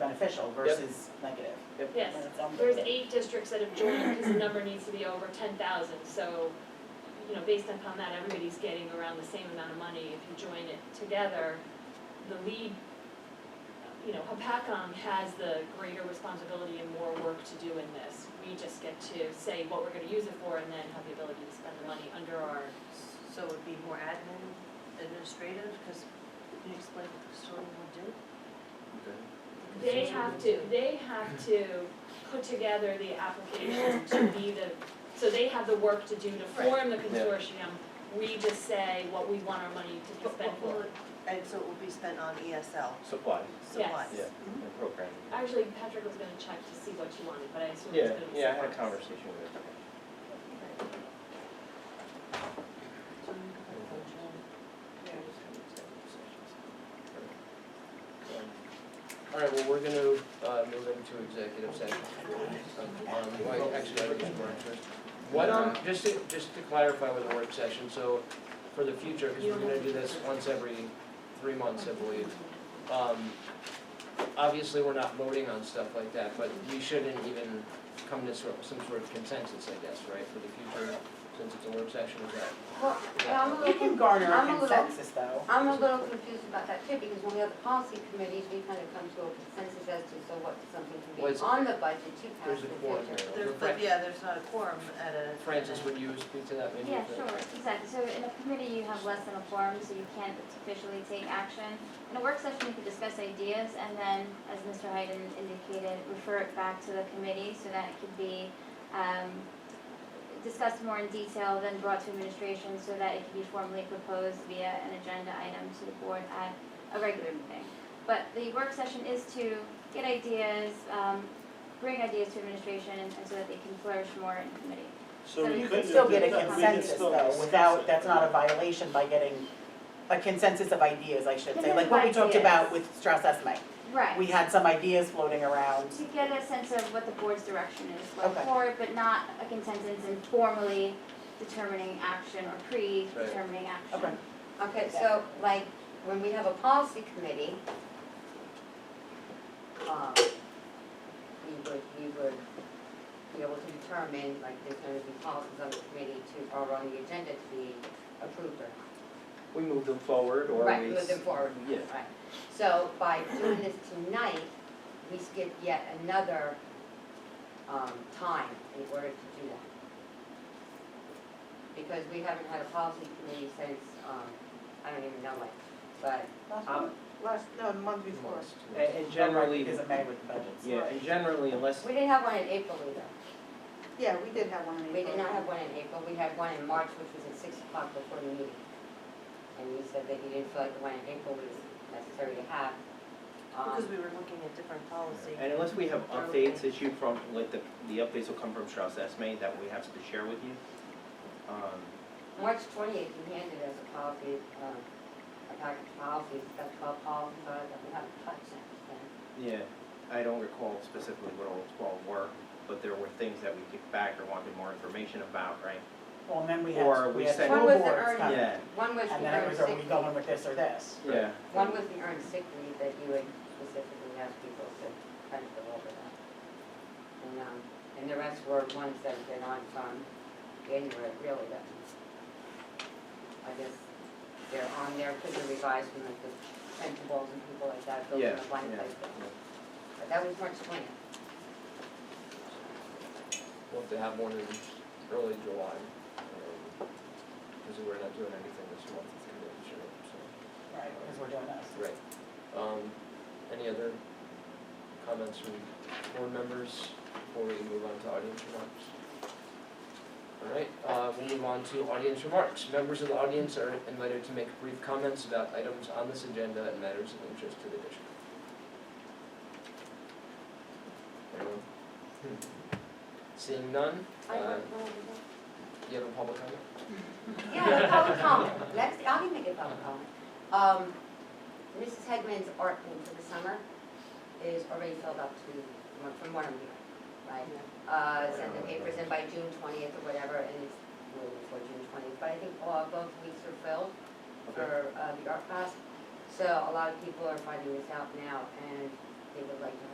beneficial versus negative. Yes, And it's on there's the- eight districts that have joined because the number needs to be over ten thousand, so, you know, based upon that, everybody's getting around the same amount of money. If you join it together, the lead, you know, HPACOM has the greater responsibility and more work to do in this. We just get to say what we're gonna use it for and then have the ability to spend the money under our, So it would be more admin, administrative, because can you explain what the custodian would do? they have to, they have to put together the application to be the, so they have the work to do to form the Yeah. consortium. We just say what we want our money to be But spent what will for. it- And so it will be spent on ESL Supplies, supplies? yeah, Mhm. and programming. Actually, Patrick was gonna check to see what you wanted, but I assume it's Yeah, gonna be supplies. yeah, I had a conversation with her. So you could put function. All right, well, we're gonna uh, move into executive session. Um, wait, Actually, I think it's work first. What, um, just to, just to clarify with the work session, so for the future, because we're gonna do this once every three months, I believe. Um, Obviously, we're not voting on stuff like that, but we shouldn't even come to sort- some sort of consensus, I guess, right, for the future, since it's a work session, is that? Well, yeah, I'm a You little, can con- garner a I'm a little- consensus though. I'm a little confused about that too, because when we have the policy committees, we kind of come to a consensus as to so what something can Well, it's- be on the budget to pass There's a in quorum the future. there. There, but yeah, there's not a quorum at a. Francis, would you speak to that maybe? Yeah, sure, exactly. So in a committee, you have less than a quorum, so you can't officially take action. In a work session, you can discuss ideas and then, as Mr. Hayden indicated, refer it back to the committee so that it can be um, discussed more in detail, then brought to administration so that it can be formally proposed via an agenda item to the board at a regular meeting. But the work session is to get ideas, um, bring ideas to administration and and so that they can flourish more in committee. So we You couldn't can still have get a done that. We could consensus still though, discuss without, it. that's not a violation by getting a consensus of ideas, I should say, like what we talked Consensus of about ideas. with Strauss Esme. Right. We had some ideas floating around. To get a sense of what the board's direction is going Okay. forward, but not a consensus in formally determining action or pre-determining action. Okay. Okay, so like, when we have a policy committee, um, we would, we would be able to determine, like, there's gonna be policies on the committee to, are on the agenda to be approved or not. We move them forward or we. Right, move them forward. Yeah. Right. So by doing this tonight, we skip yet another um, time in order to do that. Because we haven't had a policy committee since, um, I don't even know when, but Um, Last, no, the month Months, two months. And and generally, Because of May with the budgets. yeah, and generally unless, we didn't have one in April either. Yeah, we did have one in We did not have one in April, we had one in March, which was at six o'clock before the meeting. And you said that you didn't feel like the one in April was necessary to have. um, Because we were looking at different policy. and unless we have updates issued from, like the, the updates will come from Strauss Esme that we have to share with you. Um, March twenty-eighth, you handed us a policy, um, a package of policies, that's called policies, uh, that we haven't touched since then. yeah, I don't recall specifically what all twelve were, but there were things that we kicked back or wanted more information about, right? Well, and then we had, Or we we had said- school When was it boards earned? coming. Yeah, One was And the then it earned was, are we sick leave, going with this or this? yeah. one was the earned sick leave that you had specifically asked people to kind of go over that. And, um, and the rest were ones that have been on from January, really, that, I guess, they're on there, could be revised from like the principals and people like that, building Yeah, a blank yeah, place. yeah. But that was March twentieth. We'll have to have one in early July, because we're not doing anything this month, it's gonna be short, so. Right, because we're doing this. Right. Um, any other comments from board members before we move on to audience remarks? All right, uh, we'll move on to audience remarks. Members of the audience are invited to make brief comments about items on this agenda and matters of interest to the district. Anyone? Hmm. Seeing none, uh, you have a public comment? Yeah, a public comment, let's, I'll even make a public comment. Um, Mrs. Hegman's art room for the summer is already filled up to, one- from what I'm hearing, right? Uh, send the papers in by June twentieth or whatever, and it's way before June twentieth, but I think all, both weeks are filled for, uh, the art class. So a lot of people are finding this out now, and they would like to